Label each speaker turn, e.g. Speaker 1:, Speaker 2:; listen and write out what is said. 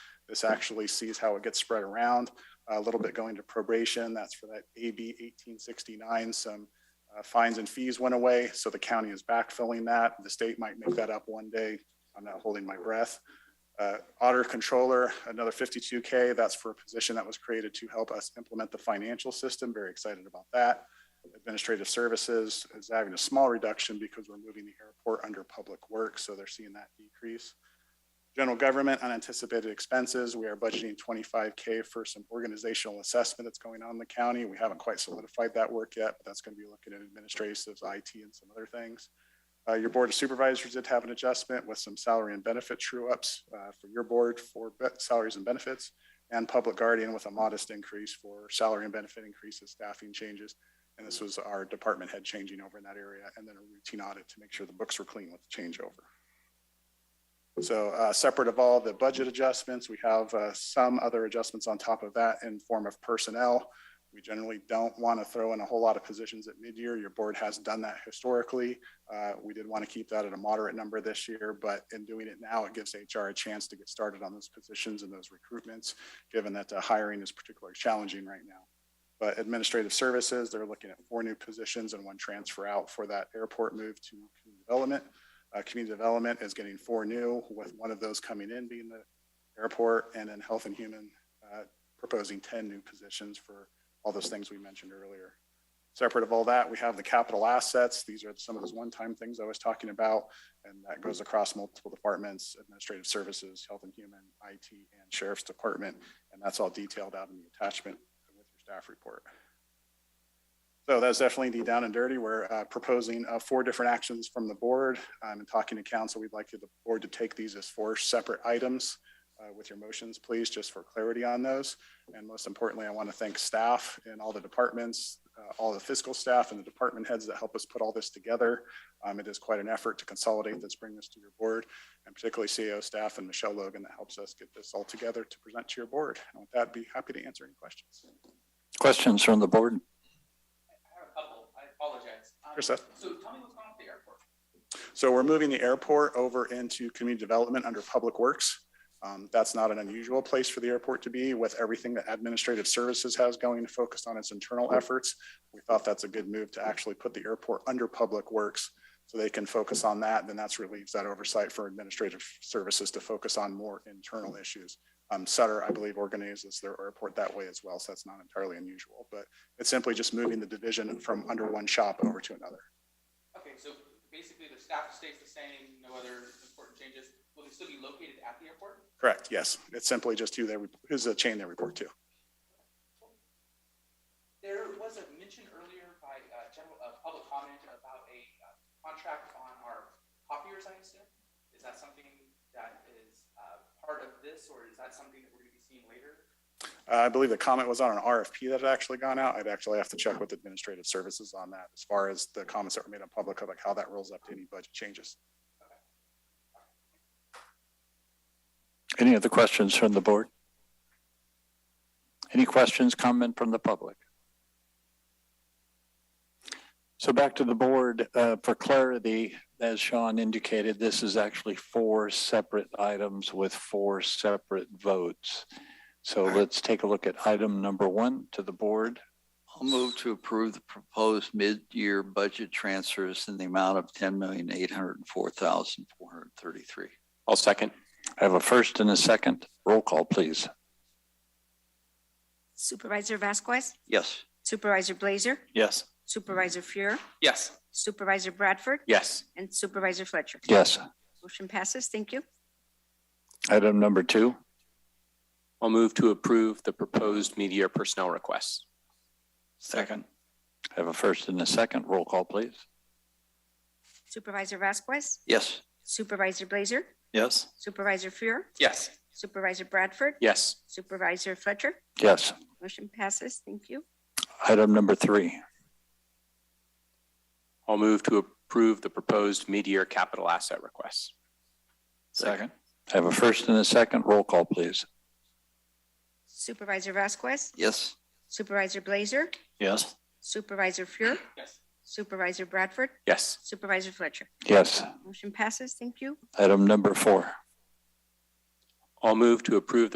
Speaker 1: This actually sees how it gets spread around, a little bit going to probation. That's for that AB 1869. Some uh, fines and fees went away, so the county is backfilling that. The state might make that up one day. I'm not holding my breath. Uh, Auditor Controller, another 52K. That's for a position that was created to help us implement the financial system. Very excited about that. Administrative Services is having a small reduction because we're moving the airport under Public Works, so they're seeing that decrease. General Government, unanticipated expenses. We are budgeting 25K for some organizational assessment that's going on in the county. We haven't quite solidified that work yet, but that's going to be looking at administratives, IT, and some other things. Uh, your Board of Supervisors did have an adjustment with some salary and benefit true-ups uh, for your board for be- salaries and benefits, and Public Guardian with a modest increase for salary and benefit increases, staffing changes. And this was our department head changing over in that area, and then a routine audit to make sure the books were clean with the changeover. So uh, separate of all the budget adjustments, we have uh, some other adjustments on top of that in form of personnel. We generally don't want to throw in a whole lot of positions at mid-year. Your board has done that historically. Uh, We did want to keep that at a moderate number this year, but in doing it now, it gives HR a chance to get started on those positions and those recruitments, given that the hiring is particularly challenging right now. But administrative services, they're looking at four new positions and one transfer out for that airport move to community development. Uh, Community Development is getting four new, with one of those coming in being the airport, and then Health and Human uh, proposing 10 new positions for all those things we mentioned earlier. Separate of all that, we have the capital assets. These are some of those one-time things I was talking about, and that goes across multiple departments, administrative services, health and human, IT, and sheriff's department, and that's all detailed out in the attachment with your staff report. So that's definitely the down and dirty. We're uh, proposing uh, four different actions from the board. Um, And talking to council, we'd like the board to take these as four separate items uh, with your motions, please, just for clarity on those. And most importantly, I want to thank staff and all the departments, uh, all the fiscal staff and the department heads that help us put all this together. Um, It is quite an effort to consolidate this, bring this to your board, and particularly CEO staff and Michelle Logan that helps us get this all together to present to your board. And with that, I'd be happy to answer any questions.
Speaker 2: Questions from the board?
Speaker 3: I have a couple, I apologize. Um,
Speaker 1: Sure, Seth.
Speaker 3: So tell me what's going on at the airport.
Speaker 1: So we're moving the airport over into community development under Public Works. Um, That's not an unusual place for the airport to be with everything that administrative services has going focused on its internal efforts. We thought that's a good move to actually put the airport under Public Works so they can focus on that. Then that's relieves that oversight for administrative services to focus on more internal issues. Um, Sutter, I believe, organizes their airport that way as well, so that's not entirely unusual. But it's simply just moving the division from under one shop over to another.
Speaker 3: Okay, so basically the staff stays the same, no other important changes. Will they still be located at the airport?
Speaker 1: Correct, yes. It's simply just who they, who's the chain they report to.
Speaker 3: There was a mention earlier by uh, general, uh, public comment about a uh, contract on our copiers, I assume? Is that something that is uh, part of this, or is that something that we're going to be seeing later?
Speaker 1: Uh, I believe the comment was on an RFP that had actually gone out. I'd actually have to check with administrative services on that as far as the comments that were made on public, like how that rolls up to any budget changes.
Speaker 2: Any other questions from the board? Any questions, comment from the public? So back to the board, uh, for clarity, as Sean indicated, this is actually four separate items with four separate votes. So let's take a look at item number one to the board.
Speaker 4: I'll move to approve the proposed mid-year budget transfers in the amount of ten million, eight hundred and four thousand, four hundred and thirty-three.
Speaker 5: I'll second.
Speaker 2: I have a first and a second. Roll call, please.
Speaker 6: Supervisor Vasquez,
Speaker 4: Yes.
Speaker 6: Supervisor Blazer,
Speaker 5: Yes.
Speaker 6: Supervisor Fuhrer,
Speaker 3: Yes.
Speaker 6: Supervisor Bradford,
Speaker 5: Yes.
Speaker 6: and Supervisor Fletcher.
Speaker 2: Yes.
Speaker 6: Motion passes. Thank you.
Speaker 2: Item number two,
Speaker 5: I'll move to approve the proposed mid-year personnel requests.
Speaker 4: Second.
Speaker 2: I have a first and a second. Roll call, please.
Speaker 6: Supervisor Vasquez,
Speaker 4: Yes.
Speaker 6: Supervisor Blazer,
Speaker 5: Yes.
Speaker 6: Supervisor Fuhrer,
Speaker 3: Yes.
Speaker 6: Supervisor Bradford,
Speaker 5: Yes.
Speaker 6: Supervisor Fletcher.
Speaker 2: Yes.
Speaker 6: Motion passes. Thank you.
Speaker 2: Item number three.
Speaker 5: I'll move to approve the proposed mid-year capital asset requests.
Speaker 4: Second.
Speaker 2: I have a first and a second. Roll call, please.
Speaker 6: Supervisor Vasquez,
Speaker 4: Yes.
Speaker 6: Supervisor Blazer,
Speaker 5: Yes.
Speaker 6: Supervisor Fuhrer,
Speaker 3: Yes.
Speaker 6: Supervisor Bradford,
Speaker 5: Yes.
Speaker 6: Supervisor Fletcher.
Speaker 2: Yes.
Speaker 6: Motion passes. Thank you.
Speaker 2: Item number four.
Speaker 5: I'll move to approve